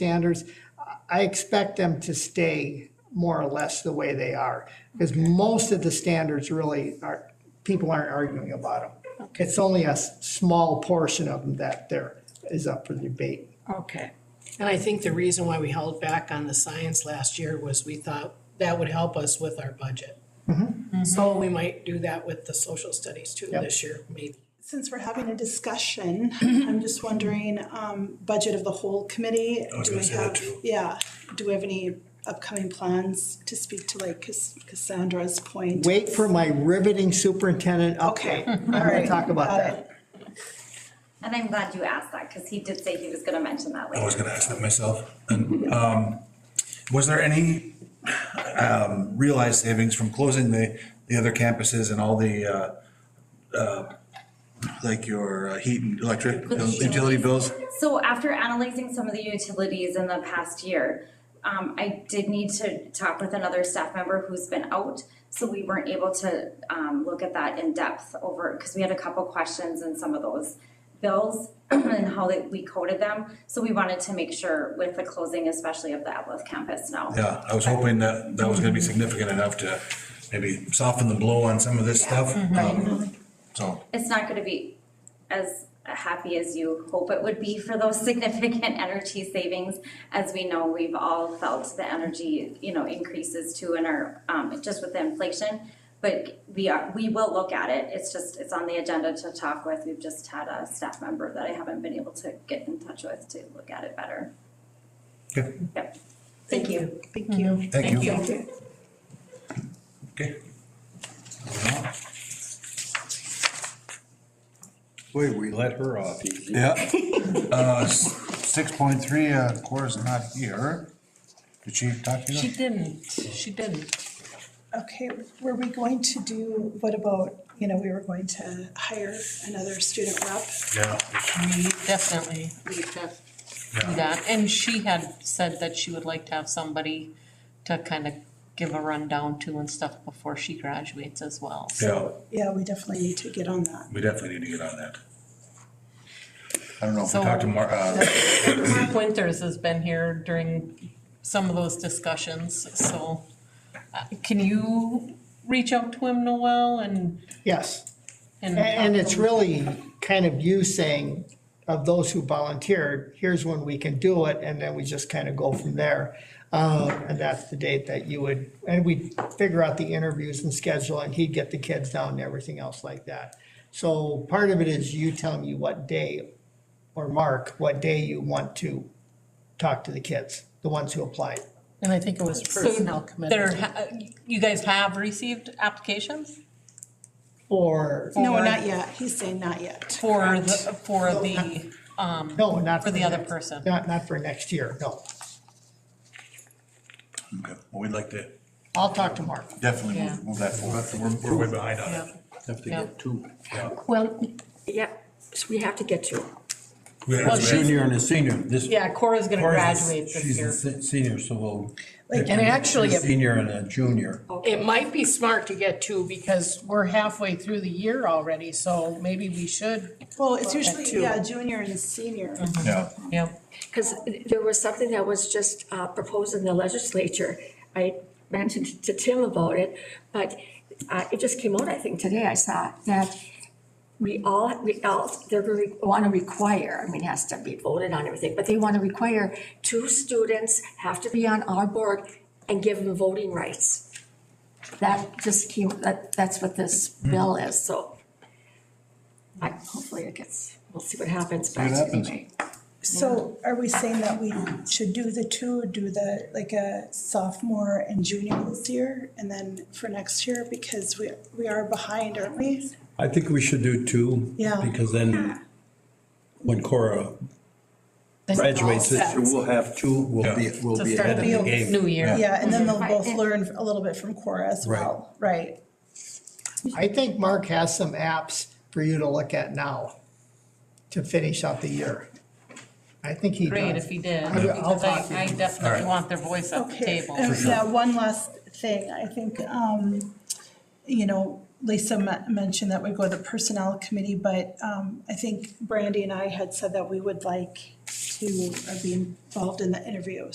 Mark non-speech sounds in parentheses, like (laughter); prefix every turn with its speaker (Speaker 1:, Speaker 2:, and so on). Speaker 1: standards, I- I expect them to stay more or less the way they are. Because most of the standards really are, people aren't arguing about them. It's only a s- small portion of them that there is up for debate.
Speaker 2: Okay,
Speaker 3: And I think the reason why we held back on the science last year was we thought that would help us with our budget. So we might do that with the social studies too
Speaker 1: Yep.
Speaker 3: this year, maybe.
Speaker 4: Since we're having a
Speaker 5: (clears throat)
Speaker 4: discussion, I'm just wondering, um, budget of the whole committee.
Speaker 5: I was
Speaker 4: do we
Speaker 5: gonna say that
Speaker 4: have-
Speaker 5: too.
Speaker 4: Yeah, do we have any upcoming plans to speak to like Cass- Cassandra's point?
Speaker 1: Wait for my riveting superintendent
Speaker 4: Okay,
Speaker 1: update.
Speaker 4: all
Speaker 1: I'm gonna
Speaker 4: right,
Speaker 1: talk about
Speaker 4: got
Speaker 1: that.
Speaker 4: it.
Speaker 6: And I'm glad you asked that because he did say he was going to mention that
Speaker 5: I was
Speaker 6: later.
Speaker 5: gonna ask that myself. And, um, was there any, um, realized savings from closing the, the other campuses and all the, uh, uh, like your uh, heat and electric, those utility bills?
Speaker 6: So after analyzing some of the utilities in the past year, um, I did need to talk with another staff member who's been out. So we weren't able to, um, look at that in depth over, because we had a couple questions in some of those bills (clears throat) and how that we coded them. So we wanted to make sure with the closing, especially of the Evelyn campus now.
Speaker 5: Yeah, I was hoping that that was gonna be significant enough to maybe soften the blow on some of this stuff. Um, So,
Speaker 6: it's not gonna be as happy as you hope it would be for those (laughs) significant energy savings. As we know, we've all felt the energy, you know, increases too in our, um, just with the inflation. But we are, we will look at it, it's just, it's on the agenda to talk with, we've just had a staff member that I haven't been able to get in touch with to look at it better.
Speaker 5: okay,
Speaker 6: Yep, thank you.
Speaker 4: Thank you.
Speaker 5: thank you.
Speaker 4: you.
Speaker 5: Okay. Boy, we
Speaker 7: Let her off easy.
Speaker 5: Yeah. Uh, six point three, uh, Cora's not here. Did she talk to
Speaker 2: she
Speaker 5: you?
Speaker 2: didn't, she didn't.
Speaker 4: Okay, were we going to do, what about, you know, we were going to hire another student rep?
Speaker 5: Yeah.
Speaker 2: We definitely need to do that. And she had said that she would like to have somebody to kind of give a rundown to and stuff before she graduates as well. So
Speaker 5: Yeah,
Speaker 4: Yeah, we definitely need to get on that.
Speaker 5: we definitely need to get on that. I don't know if we
Speaker 2: So-
Speaker 5: talked to Mar, uh,
Speaker 2: Mark Winters has been here during some of those discussions, so uh, can you reach out to him, Noel, and?
Speaker 1: Yes. And, and it's really kind of you saying, of those who volunteered, here's when we can do it, and then we just kind of go from there. Uh, and that's the date that you would, and we'd figure out the interviews and schedule, and he'd get the kids down and everything else like that. So part of it is you telling me what day, or Mark, what day you want to talk to the kids, the ones who applied.
Speaker 8: And I think it was personnel committee.
Speaker 2: There, ha- you guys have received applications
Speaker 1: Or,
Speaker 4: No,
Speaker 2: Or-
Speaker 4: not yet, he's saying not yet.
Speaker 2: for the, for the,
Speaker 1: no, not.
Speaker 2: for the other
Speaker 1: next-
Speaker 2: person?
Speaker 1: Not, not for next year, no.
Speaker 5: okay, well, we'd like to
Speaker 1: I'll talk to Mark.
Speaker 5: definitely
Speaker 2: Yeah.
Speaker 5: move, move that forward. We're, we're way behind on it.
Speaker 7: Have to
Speaker 2: Yep.
Speaker 7: get two.
Speaker 8: Well, yeah, so we have to get you.
Speaker 5: We have-
Speaker 2: Well,
Speaker 7: A
Speaker 2: she's-
Speaker 7: junior and a senior, this.
Speaker 2: Yeah, Cora's gonna
Speaker 5: Cora's a-
Speaker 2: graduate this
Speaker 7: She's a
Speaker 2: year.
Speaker 7: se- senior, so we'll.
Speaker 4: Like-
Speaker 8: And actually,
Speaker 7: A
Speaker 8: if-
Speaker 7: Senior and a junior.
Speaker 8: It might be smart to get two because we're halfway through the year already, so maybe we should.
Speaker 4: Well, it's
Speaker 8: Well, at
Speaker 4: usually,
Speaker 8: two.
Speaker 4: yeah, junior and senior.
Speaker 5: Yeah,
Speaker 2: Yep,
Speaker 8: Because there was something that was just uh, proposed in the legislature. I mentioned to Tim about it, but uh, it just came out, I think, today I saw that we all, we all, they're going to want to require, I mean, it has to be voted on and everything, but they want to require two students have to be on our board and give them voting rights. That just came, that, that's what this bill is, so I, hopefully it gets, we'll see what happens, but
Speaker 5: what happens.
Speaker 8: anyway.
Speaker 4: So are we saying that we should do the two, do the, like a sophomore and junior this year? And then for next year, because we, we are behind, aren't we?
Speaker 7: I think we should do two.
Speaker 4: Yeah.
Speaker 7: Because then when Cora
Speaker 8: Then it's all
Speaker 7: graduates this
Speaker 8: set.
Speaker 7: year, we'll have two, we'll be, we'll
Speaker 8: To
Speaker 7: be
Speaker 8: start
Speaker 7: ahead of
Speaker 4: the
Speaker 7: the game.
Speaker 2: new year.
Speaker 4: Yeah, and then they'll
Speaker 8: Right.
Speaker 4: both learn a little bit from Cora as well, right?
Speaker 1: I think Mark has some apps for you to look at now to finish out the year. I think he
Speaker 2: great if
Speaker 1: does.
Speaker 2: he did,
Speaker 1: I'll- I'll
Speaker 2: because
Speaker 1: talk to
Speaker 2: I, I
Speaker 1: him.
Speaker 2: definitely want their voice at the
Speaker 4: Okay,
Speaker 2: table.
Speaker 4: and yeah, one last thing, I think, um, you know, Lisa me- mentioned that we go to the personnel committee, but, um, I think Brandy and I had said that we would like who are being involved in the interviews.